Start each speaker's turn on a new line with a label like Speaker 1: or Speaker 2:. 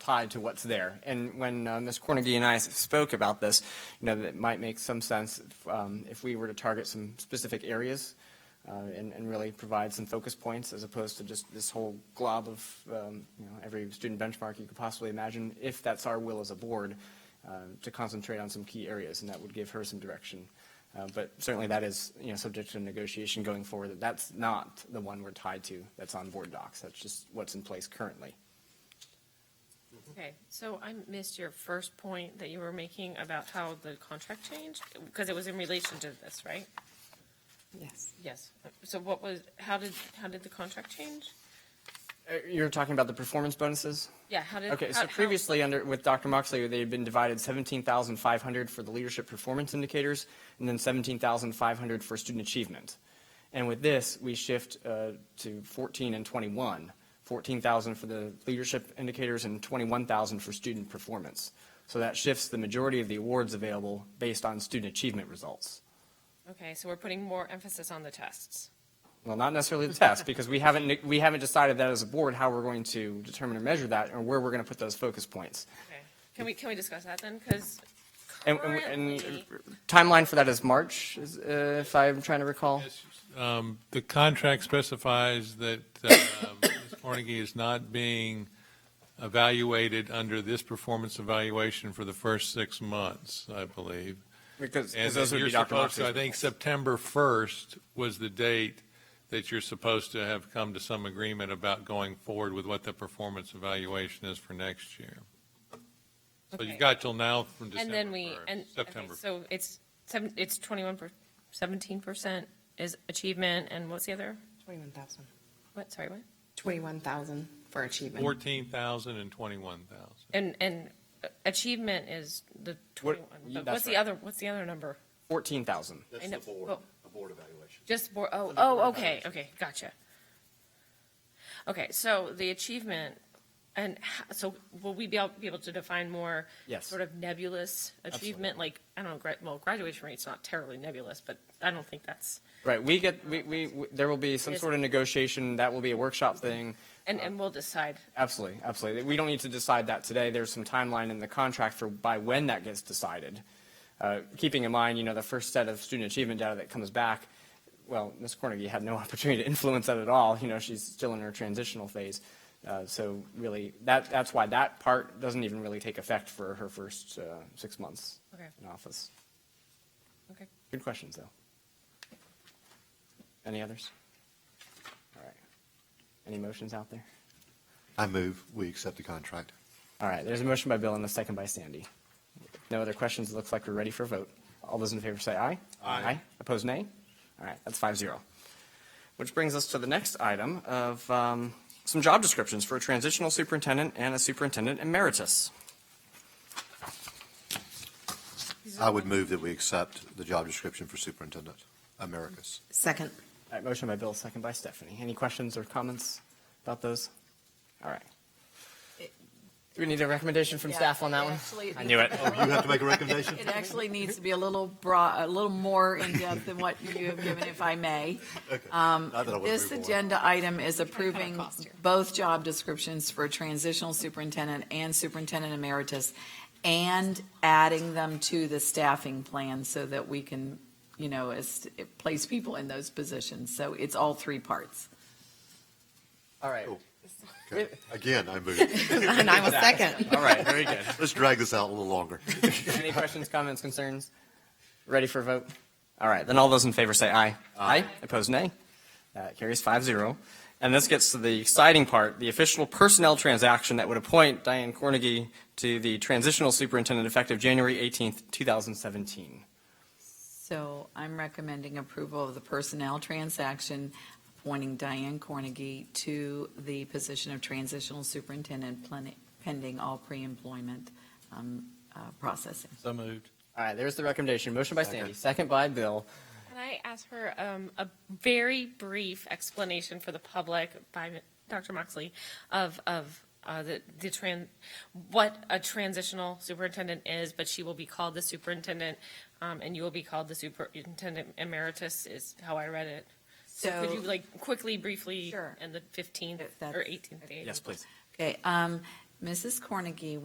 Speaker 1: tied to what's there. And when uh, Ms. Cornegie and I s- spoke about this, you know, that it might make some sense if, um, if we were to target some specific areas uh, and, and really provide some focus points as opposed to just this whole glob of, um, you know, every student benchmark you could possibly imagine, if that's our will as a board, uh, to concentrate on some key areas, and that would give her some direction. Uh, But certainly that is, you know, subject to negotiation going forward, that that's not the one we're tied to, that's on board docs, that's just what's in place currently.
Speaker 2: Okay, so I missed your first point that you were making about how the contract changed, because it was in relation to this, right?
Speaker 3: Yes.
Speaker 2: Yes. So what was, how did, how did the contract change?
Speaker 1: Uh, You're talking about the performance bonuses?
Speaker 2: Yeah, how did?
Speaker 1: Okay,
Speaker 2: uh, how-
Speaker 1: so
Speaker 2: how-
Speaker 1: previously under, with Dr. Moxley, they had been divided 17,500 for the leadership performance indicators and then 17,500 for student achievement. And with this, we shift uh, to 14 and 21, 14,000 for the leadership indicators and 21,000 for student performance. So that shifts the majority of the awards available based on student achievement results.
Speaker 2: Okay, so we're putting more emphasis on the tests.
Speaker 1: Well, not necessarily the test, because we haven't, we haven't decided that as a board how we're going to determine or measure that, or where we're going to put those focus points.
Speaker 2: Okay, can we, can we discuss that then? Because
Speaker 1: And, and,
Speaker 2: currently,
Speaker 1: and timeline for that is March, is, uh, if I'm trying to recall.
Speaker 4: Um, The contract specifies that um, Ms. Carnegie is not being evaluated under this performance evaluation for the first six months, I believe.
Speaker 1: Because,
Speaker 4: And
Speaker 1: because those would
Speaker 4: you're
Speaker 1: be Dr.
Speaker 4: supposed to-
Speaker 1: Moxley's
Speaker 4: I think
Speaker 1: goals.
Speaker 4: September 1st was the date that you're supposed to have come to some agreement about going forward with what the performance evaluation is for next year. So
Speaker 2: Okay.
Speaker 4: you've got till now from
Speaker 2: and
Speaker 4: December
Speaker 2: then we,
Speaker 4: 1st,
Speaker 2: and, okay,
Speaker 4: September
Speaker 2: so it's seven, it's twenty-one per, seventeen percent is achievement, and what's the other?
Speaker 3: 21,000.
Speaker 2: What, sorry, what?
Speaker 3: 21,000 for achievement.
Speaker 4: 14,000 and 21,000.
Speaker 2: And, and uh, achievement is the
Speaker 1: What-
Speaker 2: twenty-one,
Speaker 1: yeah,
Speaker 2: but
Speaker 1: that's
Speaker 2: what's the
Speaker 1: right.
Speaker 2: other, what's the other number?
Speaker 1: 14,000.
Speaker 2: I
Speaker 5: That's
Speaker 2: know,
Speaker 5: the board,
Speaker 2: but-
Speaker 5: the board evaluation.
Speaker 2: Just board, oh, oh, okay, okay, gotcha. Okay, so the achievement, and ho- so will we be able, be able to define more?
Speaker 1: Yes.
Speaker 2: Sort of nebulous achievement, like, I don't know, gra- well, graduation rate's not terribly nebulous, but I don't think that's,
Speaker 1: Right, we get, we, we, we- there will be some
Speaker 2: Yes.
Speaker 1: sort of negotiation, that will be a workshop thing.
Speaker 2: and,
Speaker 5: Uh,
Speaker 2: and we'll decide.
Speaker 1: Absolutely, absolutely. We don't need to decide that today. There's some timeline in the contract for by when that gets decided. Uh, Keeping in mind, you know, the first set of student achievement data that comes back, well, Ms. Cornegie had no opportunity to influence that at all. You know, she's still in her transitional phase. Uh, So really, that, that's why that part doesn't even really take effect for her first uh, six months
Speaker 2: Okay.
Speaker 1: in office.
Speaker 2: Okay.
Speaker 1: Good questions, though. Any others? All right. Any motions out there?
Speaker 5: I move, we accept the contract.
Speaker 1: All right, there's a motion by Bill and a second by Sandy. No other questions, it looks like we're ready for a vote. All those in favor say aye.
Speaker 5: Aye.
Speaker 1: Opposed, nay? All right, that's five zero. Which brings us to the next item of um, some job descriptions for a transitional superintendent and a superintendent emeritus.
Speaker 5: I would move that we accept the job description for superintendent, Americas.
Speaker 3: Second.
Speaker 1: All right, motion by Bill, second by Stephanie. Any questions or comments about those? All right. Do we need a recommendation from
Speaker 6: Yeah,
Speaker 1: staff on that
Speaker 6: it
Speaker 1: one?
Speaker 6: actually-
Speaker 1: I knew it.
Speaker 5: You have to make a recommendation?
Speaker 6: It actually needs to be a little broad, a little more in-depth than what you have given, if I may. Um,
Speaker 5: Not that I would
Speaker 6: This
Speaker 5: move on.
Speaker 6: agenda item is approving
Speaker 3: cost here.
Speaker 6: both job descriptions for transitional superintendent and superintendent emeritus, and adding them to the staffing plan so that we can, you know, est- place people in those positions. So it's all three parts.
Speaker 1: All right.
Speaker 5: Okay. Again, I move.
Speaker 3: And I was second.
Speaker 1: All right, very good.
Speaker 5: Let's drag this out a little longer.
Speaker 1: Any questions, comments, concerns? Ready for a vote? All right, then all those in favor say aye. Aye. Opposed, nay. That carries five zero. And this gets to the exciting part, the official personnel transaction that would appoint Diane Cornegie to the transitional superintendent effective January 18th, 2017.
Speaker 6: So I'm recommending approval of the personnel transaction appointing Diane Cornegie to the position of transitional superintendent plen- pending all pre-employment um, uh, processing.
Speaker 4: So moved.
Speaker 1: All right, there's the recommendation. Motion by Sandy, second by Bill.
Speaker 2: Can I ask her um, a very brief explanation for the public by Dr. Moxley of, of uh, the, the tran, what a transitional superintendent is, but she will be called the superintendent, um, and you will be called the superintendent emeritus is how I read it. So could
Speaker 6: So-
Speaker 2: you like quickly, briefly,
Speaker 6: Sure.
Speaker 2: in the 15th
Speaker 6: If that's-
Speaker 2: or 18th day?
Speaker 1: Yes, please.
Speaker 6: Okay, um, Mrs. Cornegie